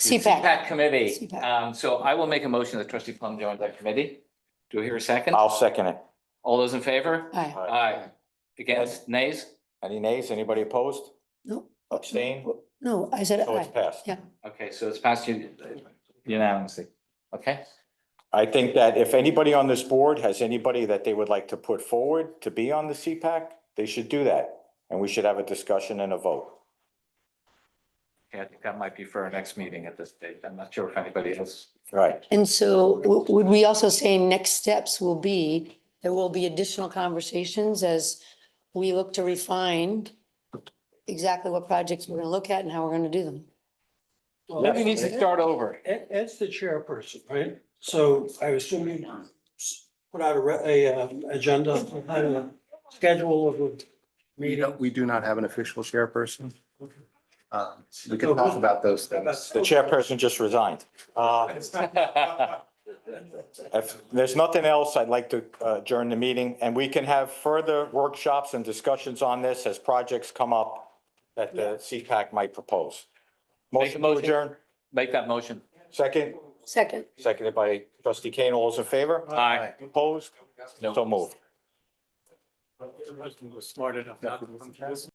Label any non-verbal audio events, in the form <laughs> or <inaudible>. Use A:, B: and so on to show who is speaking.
A: The
B: CPAC.
A: CPAC committee.
B: CPAC.
A: Um, so I will make a motion that trustee Plum joins that committee. Do I hear a second?
C: I'll second it.
A: All those in favor?
B: Aye.
C: Aye.
A: Aye. Against, nays?
C: Any nays? Anybody opposed?
B: No,
C: Abstain?
B: no, I said
C: So Oh, it's
B: aye.
C: passed.
B: Yeah.
A: Okay, so it's passed un- unanimously. Okay,
C: I think that if anybody on this board has anybody that they would like to put forward to be on the CPAC, they should do that. And we should have a discussion and a vote.
A: Okay, I think that might be for our next meeting at this date. I'm not sure if anybody else.
C: Right.
B: And so w- would we also say next steps will be, there will be additional conversations as we look to refine exactly what projects we're going to look at and how we're going to do them.
D: Well,
A: Maybe needs to start over.
D: Ed, Ed's the chairperson, right? So I assume you s- put out a, re- a, uh, agenda, a schedule of a
E: We
D: meeting.
E: don't, we do not have an official chairperson. Um, We can
D: So
E: talk
D: who-
E: about those things.
C: The chairperson just resigned. Uh, If there's nothing else, I'd like to uh, adjourn the meeting and we can have further workshops and discussions on this as projects come up that the CPAC might propose.
A: Make a
C: Motion to
A: motion.
C: adjourn,
A: <laughs> Make that motion.
C: second,
B: Second.
C: seconded by trustee Kane. All those in favor?
A: Aye.
C: Opposed?
A: No.
C: So moved.
E: Smart enough.